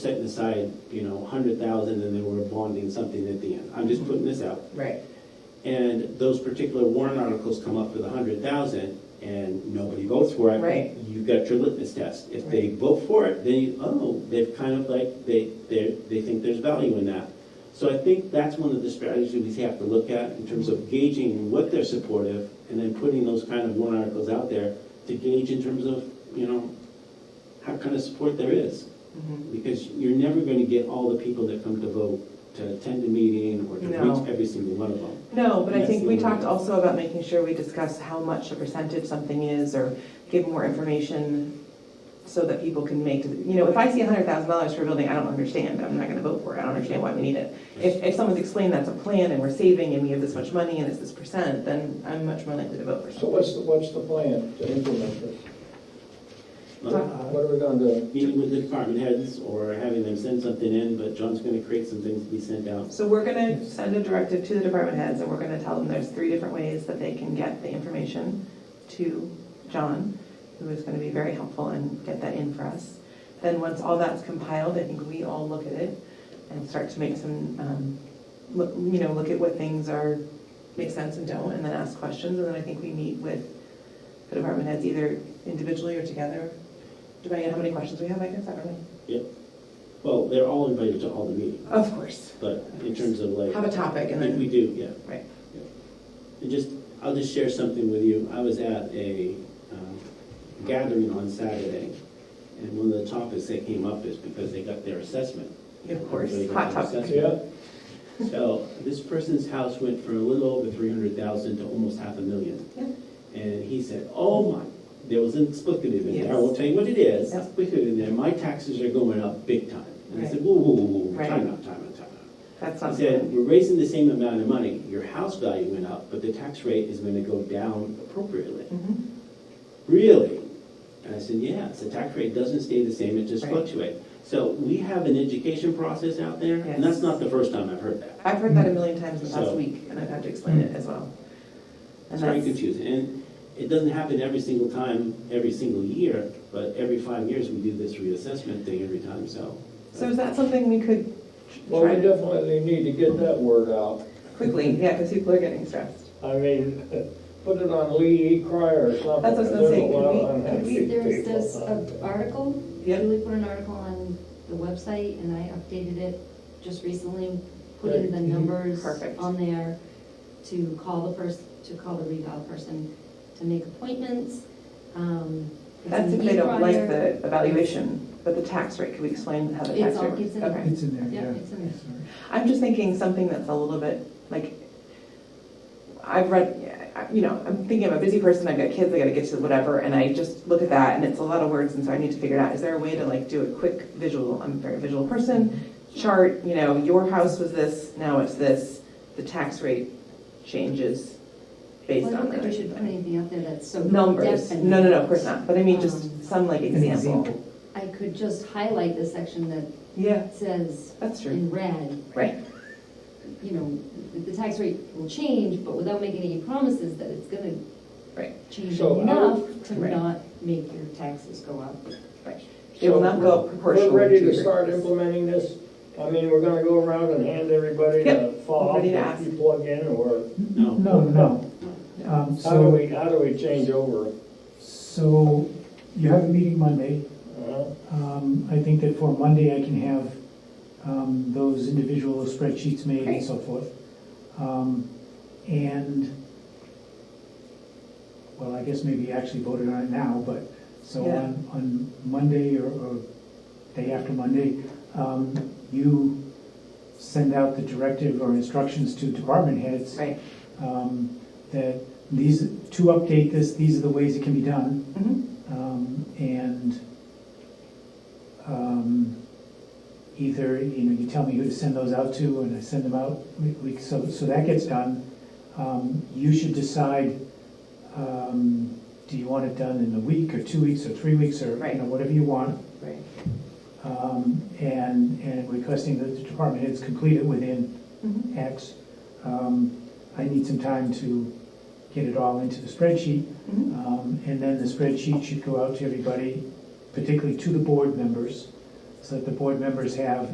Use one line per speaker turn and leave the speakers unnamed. setting aside, you know, hundred thousand and they were bonding something at the end. I'm just putting this out.
Right,
And those particular warrant articles come up with a hundred thousand and nobody votes for it.
Right.
You've got your litmus test. If they vote for it, then you, oh, they've kind of like, they, they, they think there's value in that. So I think that's one of the strategies we have to look at in terms of gauging what they're supportive and then putting those kind of warrant articles out there to gauge in terms of, you know, how kind of support there is
Mhm.
because you're never going to get all the people that come to vote to attend a meeting or to
No.
reach every single one of them.
No, but I think we
Yes.
talked also about making sure we discuss how much a percentage something is or give more information so that people can make, you know, if I see hundred thousand dollars for a building, I don't understand, I'm not gonna vote for it, I don't understand why we need it. If, if someone's explained that's a plan and we're saving and we have this much money and it's this percent, then I'm much more likely to vote for
So
something.
what's the, what's the plan to implement this?
Uh,
What are we gonna do?
Meeting with the department heads or having them send something in, but John's going to create some things to be sent out.
So we're gonna send a directive to the department heads and we're gonna tell them there's three different ways that they can get the information to John, who is gonna be very helpful and get that in for us. Then once all that's compiled, I think we all look at it and start to make some, um, look, you know, look at what things are, make sense and don't, and then ask questions, and then I think we meet with the department heads either individually or together, depending on how many questions we have, I guess, I don't know.
Well, they're all invited to all the meetings,
Of course,
but in terms of like,
have a topic and
if we
then,
do, yeah.
right.
And just, I'll just share something with you. I was at a um, gathering on Saturday, and one of the topics that came up is because they got their assessment.
Of course,
Everybody got
hot
their
topic.
assessment.
Yeah,
So this person's house went for a little over three hundred thousand to almost half a million.
Yeah.
And he said, oh my, there was an explicative in there, I
Yes.
won't tell you what it is,
Yep.
explicative in there, my taxes are going up big time. And I said, whoa, whoa, whoa, whoa,
Right.
time out, time out, time out.
That's not.
He said, we're raising the same amount of money, your house value went up, but the tax rate is gonna go down appropriately.
Mhm.
Really? And I said, yeah, it's the tax rate doesn't stay the same, it just
Right.
fluctuates. So we have an education process out there, and
Yes.
that's not the first time I've heard that.
I've heard that a million times in the past
So-
week, and I've had to explain
Mm.
it as well. And
It's very
that's,
confusing, and it doesn't happen every single time, every single year, but every five years, we do this reassessment thing every time, so.
so is that something we could tr-
well,
try
we
to
definitely need to get that word out.
quickly, yeah, because people are getting stressed.
I mean, put it on Lee E. Cryer or something.
That's what I was gonna
There's a
say, could
lot
we-
of
could
unhappy
we-
There's
people
this
out
uh,
there.
article,
Yep.
Julie put an article on the website, and I updated it just recently, putting the
Mhm.
numbers
Perfect.
on there to call the person, to call the reval person, to make appointments. um, it's
That's
an
if they don't like
e-crier.
the evaluation, but the tax rate, could we explain how the
It's
tax
all-
rate?
it's in-
Okay.
It's in there,
Yeah,
yeah.
it's in there.
Sorry.
I'm just thinking something that's a little bit, like, I've read, I- you know, I'm thinking I'm a busy person, I've got kids, I gotta get to whatever, and I just look at that, and it's a lot of words, and so I need to figure it out, is there a way to like do a quick visual, I'm a very visual person, chart, you know, your house was this, now it's this, the tax rate changes
Well,
based
I
on
don't think we
that.
should put anything out there that's so.
Numbers,
definite.
no, no, no, of course not, but I mean, just
Um,
some like example.
I could just highlight the section that
Yeah,
says
that's true,
in red,
right,
you know, the tax rate will change, but without making any promises that it's gonna
right,
change
So I
enough to
Right.
not make your taxes go up.
right. It will not go up proportionally.
We're ready
your-
to start implementing this. I mean, we're gonna go around and hand everybody the
Yep,
file
ready to
that
ask.
you plug in, or
No.
No, no. Um,
how do
So,
we, how do we change over?
so you have a meeting Monday.
Uh,
Um, I think that for Monday, I can have um, those individual spreadsheets made
Great.
and so forth. Um, And, well, I guess maybe you actually voted on it now, but, so
Yeah.
on, on Monday or- or day after Monday, um, you send out the directive or instructions to department heads
Right,
um, that these, to update this, these are the ways it can be done,
mhm.
um, and um, either, you know, you tell me who to send those out to, and I send them out, we- we- so, so that gets done. Um, You should decide, um, do you want it done in a week, or two weeks, or three weeks, or, you know,
Right.
whatever you want.
Right,
Um, And, and requesting that the department heads complete it within
Mm-hmm.
X. Um, I need some time to get it all into the spreadsheet.
Mhm.
Um, And then the spreadsheet should go out to everybody, particularly to the board members, so that the board members have